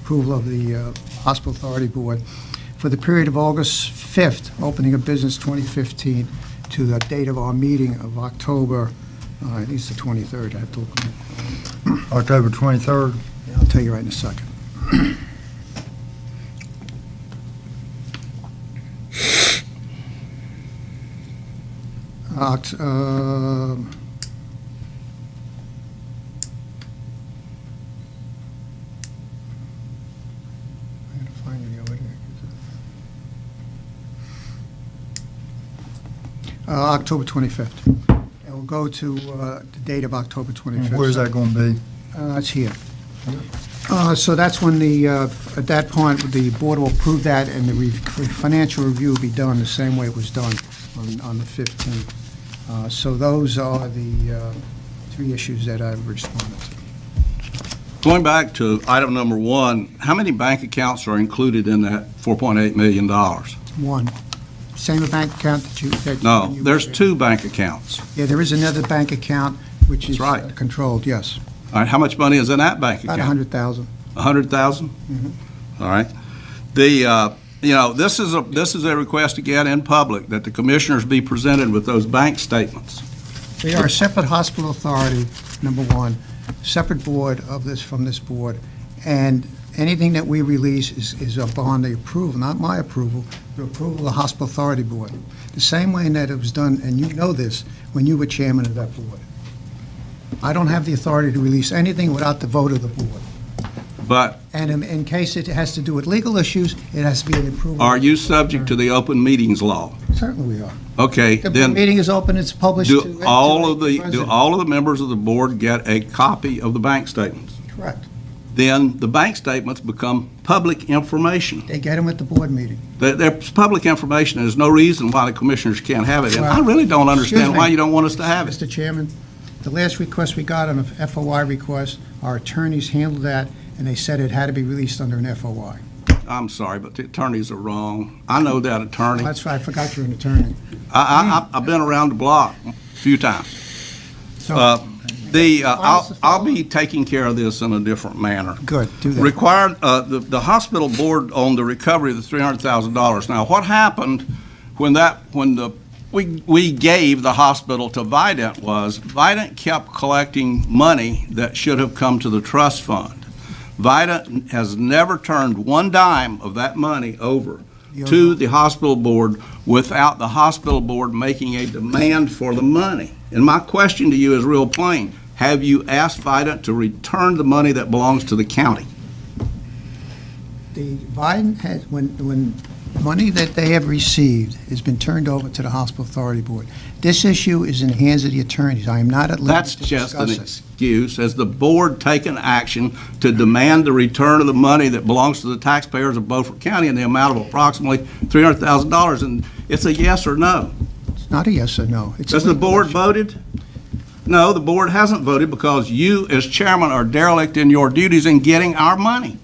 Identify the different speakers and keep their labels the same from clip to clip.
Speaker 1: approval of the uh, Hospital Authority Board for the period of August 5th, opening of business 2015, to the date of our meeting of October, uh, I think it's the 23rd, I have to look. at it.
Speaker 2: October 23rd.
Speaker 1: I'll tell you right in a second. Oct- uh, um, I gotta find it over here. Uh, October 25th. And we'll go to uh, the date of October 25th.
Speaker 2: Where's that going to be?
Speaker 1: Uh, It's here. Uh, So that's when the, uh, at that point, the board will approve that, and the re- financial review will be done the same way it was done on on the 15th. Uh, So those are the uh, three issues that I've responded to.
Speaker 3: Going back to item number one, how many bank accounts are included in that $4.8 million?
Speaker 1: One, same bank account that you... that
Speaker 3: No,
Speaker 1: you-
Speaker 3: there's two bank accounts.
Speaker 1: Yeah, there is another bank account, which is...
Speaker 3: That's right.
Speaker 1: uh, Controlled, yes.
Speaker 3: All right, how much money is in that bank
Speaker 1: About Mm-hmm. 100,000.
Speaker 3: account? A hundred thousand? All right. The, uh, you know, this is a, this is a request again in public that the commissioners be presented with those bank statements.
Speaker 1: They are a separate hospital authority, number one, separate board of this, from this board, and anything that we release is, is upon the approval, not my approval, the approval of the hospital authority board. The same way that it was done, and you know this, when you were chairman of that board. I don't have the authority to release anything without the vote of the board.
Speaker 3: But
Speaker 1: And in, in case it has to do with legal issues, it has to be an approval.
Speaker 3: are you subject to the open meetings law?
Speaker 1: Certainly we are.
Speaker 3: Okay,
Speaker 1: The
Speaker 3: then
Speaker 1: meeting is open, it's published. to-
Speaker 3: do
Speaker 1: to
Speaker 3: all of the, do
Speaker 1: president.
Speaker 3: all of the members of the board get a copy of the bank statements?
Speaker 1: Correct.
Speaker 3: Then the bank statements become public information.
Speaker 1: They get them at the board meeting.
Speaker 3: They're, they're public information. There's no reason why the commissioners can't have it. And I
Speaker 1: Well,
Speaker 3: really don't understand
Speaker 1: excuse me.
Speaker 3: why you don't want us to have it.
Speaker 1: Mr. Chairman, the last request we got on a FOI request, our attorneys handled that, and they said it had to be released under an FOI.
Speaker 3: I'm sorry, but the attorneys are wrong. I know that attorney. I,
Speaker 1: That's why I forgot you're an attorney.
Speaker 3: I, I- I've been around the block a few times.
Speaker 1: So,
Speaker 3: Uh, The, uh, I'll,
Speaker 1: Files to
Speaker 3: I'll be taking care of this in a different manner.
Speaker 1: good, do that.
Speaker 3: Required, uh, the, the hospital board on the recovery of the three hundred thousand dollars. Now, what happened when that, when the, we, we gave the hospital to Vidant was, Vidant kept collecting money that should have come to the trust fund. Vidant has never turned one dime of that money over to the hospital board without the hospital board making a demand for the money. And my question to you is real plain. Have you asked Vidant to return the money that belongs to the county?
Speaker 1: The Biden has, when, when money that they have received has been turned over to the hospital authority board, this issue is in the hands of the attorneys. I am not at
Speaker 3: That's
Speaker 1: liberty to
Speaker 3: just an
Speaker 1: discuss this.
Speaker 3: excuse. Has the board taken action to demand the return of the money that belongs to the taxpayers of Beaufort County in the amount of approximately $300,000? And it's a yes or no.
Speaker 1: It's not a yes or no. It's a
Speaker 3: Has the board
Speaker 1: legal
Speaker 3: voted? No, the board hasn't voted because you, as chairman, are derelict in your duties in getting our money.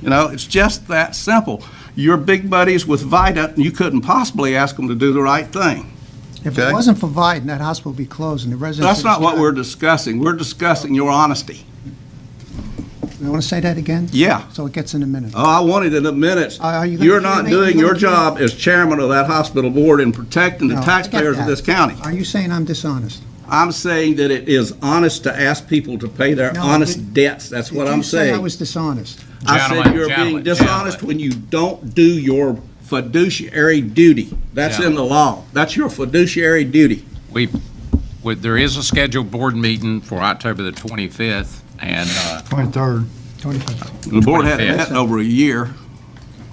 Speaker 3: You know, it's just that simple. You're big buddies with Vida, and you couldn't possibly ask them to do the right thing.
Speaker 1: issue. If it
Speaker 3: okay.
Speaker 1: wasn't for Biden, that hospital would be closed, and the residents...
Speaker 3: That's not what we're discussing. We're discussing your honesty.
Speaker 1: You want to say that again?
Speaker 3: Yeah.
Speaker 1: So it gets in a minute.
Speaker 3: Oh, I want it in the minutes.
Speaker 1: Uh, are you gonna
Speaker 3: You're
Speaker 1: do
Speaker 3: not
Speaker 1: anything?
Speaker 3: doing
Speaker 1: You're
Speaker 3: your
Speaker 1: gonna do
Speaker 3: job as chairman of that hospital board in protecting the
Speaker 1: No, I get
Speaker 3: taxpayers of
Speaker 1: that.
Speaker 3: this county.
Speaker 1: Are you saying I'm dishonest?
Speaker 3: I'm saying that it is honest to ask people to pay their
Speaker 1: No, I
Speaker 3: honest
Speaker 1: didn't-
Speaker 3: debts. That's what I'm
Speaker 1: Did you say I
Speaker 3: saying.
Speaker 1: was dishonest?
Speaker 3: I said
Speaker 4: Gentlemen,
Speaker 3: you're being
Speaker 4: gentlemen,
Speaker 3: dishonest
Speaker 4: gentlemen.
Speaker 3: when you don't do your fiduciary duty. That's in the law. That's your fiduciary duty.
Speaker 4: We, we- there is a scheduled board meeting for October the 25th, and uh,
Speaker 2: 23rd.
Speaker 1: 25.
Speaker 3: The board hadn't
Speaker 4: 25th.
Speaker 3: met in over a year.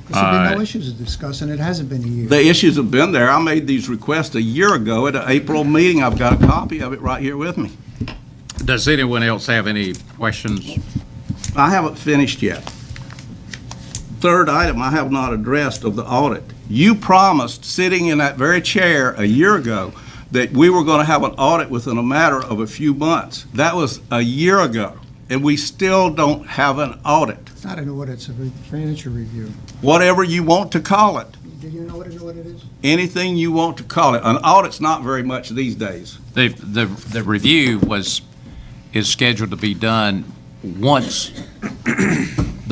Speaker 1: There's been no
Speaker 4: Uh,
Speaker 1: issues to discuss, and it hasn't been a year.
Speaker 3: The issues have been there. I made these requests a year ago at an April meeting. I've got a copy of it right here with me.
Speaker 4: does anyone else have any questions?
Speaker 3: I haven't finished yet. Third item I have not addressed of the audit. You promised, sitting in that very chair a year ago, that we were going to have an audit within a matter of a few months. That was a year ago, and we still don't have an audit,
Speaker 1: It's not an audit, it's a re- financial review.
Speaker 3: whatever you want to call it,
Speaker 1: Do you know what an audit is?
Speaker 3: anything you want to call it. An audit's not very much these days.
Speaker 4: The, the, the review was, is scheduled to be done once